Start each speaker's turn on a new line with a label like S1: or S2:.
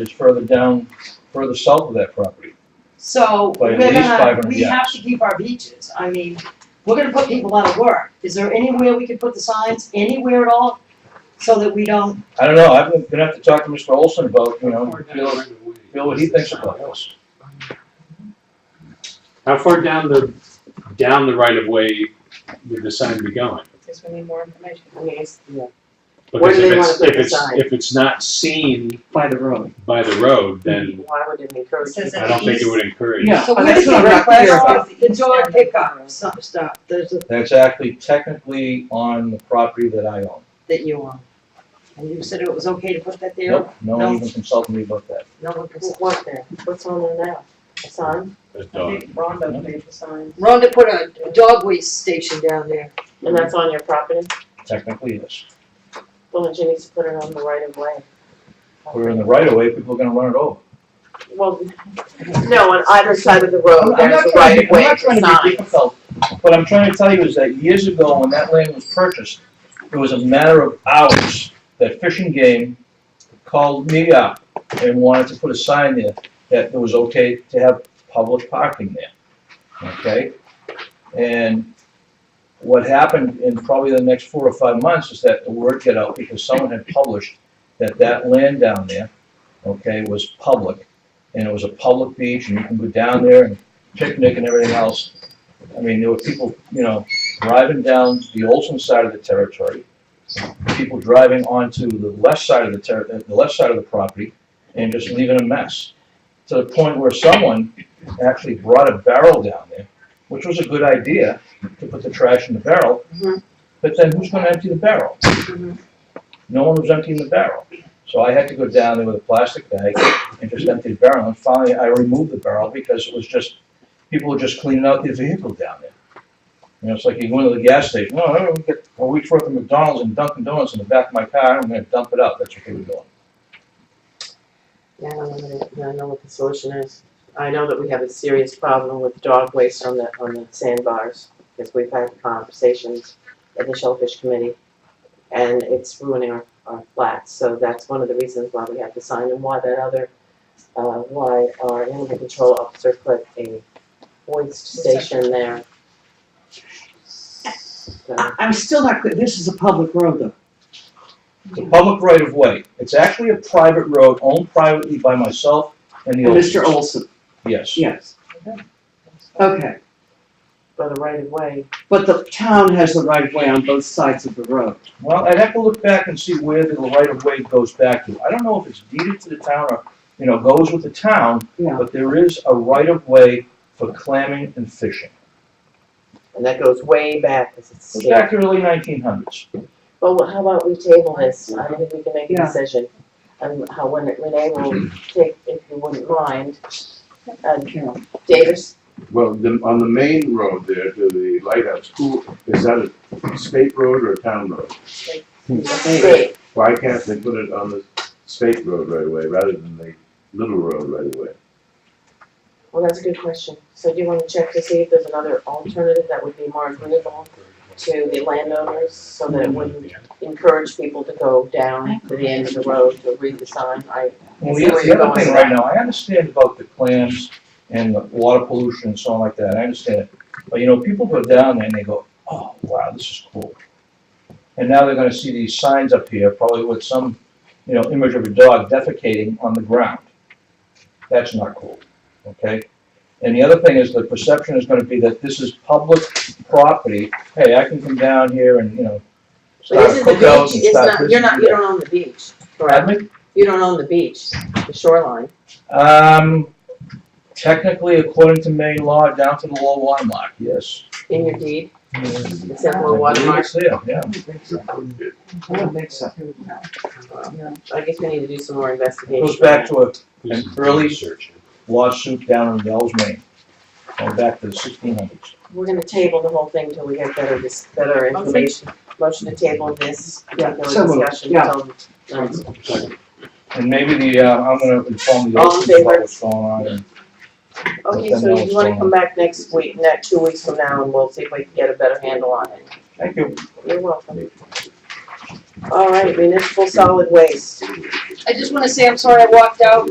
S1: It's further down, further south of that property.
S2: So
S1: By
S2: we're
S1: at least
S2: gonna,
S1: 500
S2: we have to keep our beaches, I mean, we're gonna put people out of work, is there anywhere we can put the signs, anywhere at all? So that we don't,
S1: I don't know, I'm gonna have to talk to Mr. Olson about, you know, feel, feel what he thinks about this.
S3: How far down the, down the right of way would the sign be going?
S4: Because we need more information. I mean, it's,
S3: Because
S4: do
S3: if
S4: they
S3: it's-
S4: wanna put
S3: if
S4: the
S3: it's-
S4: sign?
S3: If it's not seen
S5: by the road.
S3: by the road, then
S4: why would it encourage
S2: Says
S4: people?
S3: I don't think it would encourage.
S5: Yeah,
S2: so
S5: but
S2: where
S5: that's
S2: did
S5: what
S2: the
S5: I'm not clear
S2: request
S5: about.
S2: of the door pickup stop, stop, there's a,
S1: That's actually technically on the property that I own.
S2: that you own? And you said it was okay to put that there?
S1: Nope, no
S2: No.
S1: one even consulted me about that.
S2: No one can,
S4: What's there? What's on there now? A sign?
S3: a
S4: I
S3: dog.
S4: think Rondo made the sign.
S2: Rhonda put a a dog waste station down there,
S1: Mm-hmm.
S4: And that's on your property?
S1: Technically, yes.
S4: Well, then she needs to put it on the right of way.
S1: We're in the right of way, people are gonna run it over.
S4: Well, no, on either side of the
S1: I'm
S4: road,
S1: I'm
S4: there's
S1: not
S4: the
S1: trying
S4: right
S1: to, I'm
S4: of way
S1: not trying to be
S4: sign.
S1: difficult. What I'm trying to tell you is that years ago, when that land was purchased, it was a matter of hours that fishing game called me up and wanted to put a sign there that it was okay to have public parking there, okay? And what happened in probably the next four or five months is that the word got out because someone had published that that land down there, okay, was public. And it was a public beach and you can go down there and picnic and everything else. I mean, there were people, you know, driving down the Olson side of the territory, people driving onto the left side of the ter, the left side of the property, and just leaving a mess. To the point where someone actually brought a barrel down there, which was a good idea, to put the trash in the barrel,
S4: Mhm.
S1: but then who's gonna empty the barrel? No one was emptying the barrel. So I had to go down there with a plastic bag and just empty the barrel, and finally I removed the barrel because it was just people are just cleaning out their vehicle down there. You know, it's like you go into the gas station, oh, I'm gonna get a week's worth of McDonald's and Dunkin' Donuts in the back of my car, I'm gonna dump it out, that's what they were doing.
S4: Yeah, I don't know what, it- I know what the solution is. I know that we have a serious problem with dog waste on the, on the sandbars, because we've had conversations at the Shellfish Committee, and it's ruining our, our flats, so that's one of the reasons why we have the sign, and why that other, uh, why our animal control officer put a waste station there. So,
S5: I, I'm still not, clear. this is a public road though.
S1: It's a public right of way, it's actually a private road owned privately by myself and the
S5: And Mr.
S1: Olsons.
S5: Olson,
S1: Yes,
S5: yes. Okay,
S4: but the right of way,
S5: but the town has the right of way on both sides of the road.
S1: well, I'd have to look back and see where the right of way goes back to, I don't know if it's deeded to the town or, you know, goes with the town,
S5: Yeah.
S1: but there is a right of way for clamming and fishing,
S4: and that goes way back, 'cause it's.
S1: It's back to early nineteen hundreds.
S4: Well, wh- how about we table this, I don't think we can make a
S5: Yeah.
S4: decision, and how, when it- Renee will take, if you wouldn't mind, and
S5: Carol.
S4: Davis,
S6: Well, the, on the main road there to the lighthouse, who, is that a state road or a town road?
S1: Hmm.
S4: Dave,
S6: Why can't they put it on the state road right away rather than the little road right away?
S4: well, that's a good question, so do you wanna check to see if there's another alternative that would be more agreeable to the landowners, so that it wouldn't encourage people to go down to the end of the road to read the sign, I,
S1: Well,
S4: See
S1: the
S4: where
S1: the
S4: you're
S1: other
S4: going
S1: thing
S4: with
S1: right
S4: that.
S1: now, I understand about the clams and the water pollution and so on like that, I understand it. But you know, people go down there and they go, oh, wow, this is cool. And now they're gonna see these signs up here, probably with some, you know, image of a dog defecating on the ground. That's not cool, okay? And the other thing is the perception is gonna be that this is public property, hey, I can come down here and, you know,
S4: but
S1: start
S4: this is the
S1: cookouts
S4: beach,
S1: and
S4: it's
S1: start
S4: not,
S1: this
S4: you're
S1: and
S4: not,
S1: that.
S4: you don't own the beach,
S1: Pardon
S4: correct?
S1: me?
S4: You don't own the beach, the shoreline.
S1: Um, technically, according to Maine law, down to the low water mark, yes.
S4: in your deed,
S6: It
S4: except for one
S1: I believe
S4: mark.
S1: it's there, yeah.
S5: I don't think so.
S4: I guess we need to do some more investigation.
S1: Goes back to a
S3: It's
S1: early-
S3: search.
S1: lawsuit down in Wells, Maine, going back to the sixteen hundreds.
S4: We're gonna table the whole thing till we get better, dis- better information. Motion to table this,
S5: Yeah,
S4: particular
S5: so moved,
S4: discussion
S5: yeah.
S4: till. um,
S1: And maybe the, uh, I'm gonna inform the
S4: All in
S1: officers about
S4: favor?
S1: what's going on, and
S4: Okay, so
S1: Nothing else
S4: you wanna
S1: going
S4: come back next week, next, two weeks from now, and we'll see if we can get a better handle on it.
S1: thank you.
S4: You're welcome. All right, municipal solid waste.
S2: I just wanna say, I'm sorry I walked out,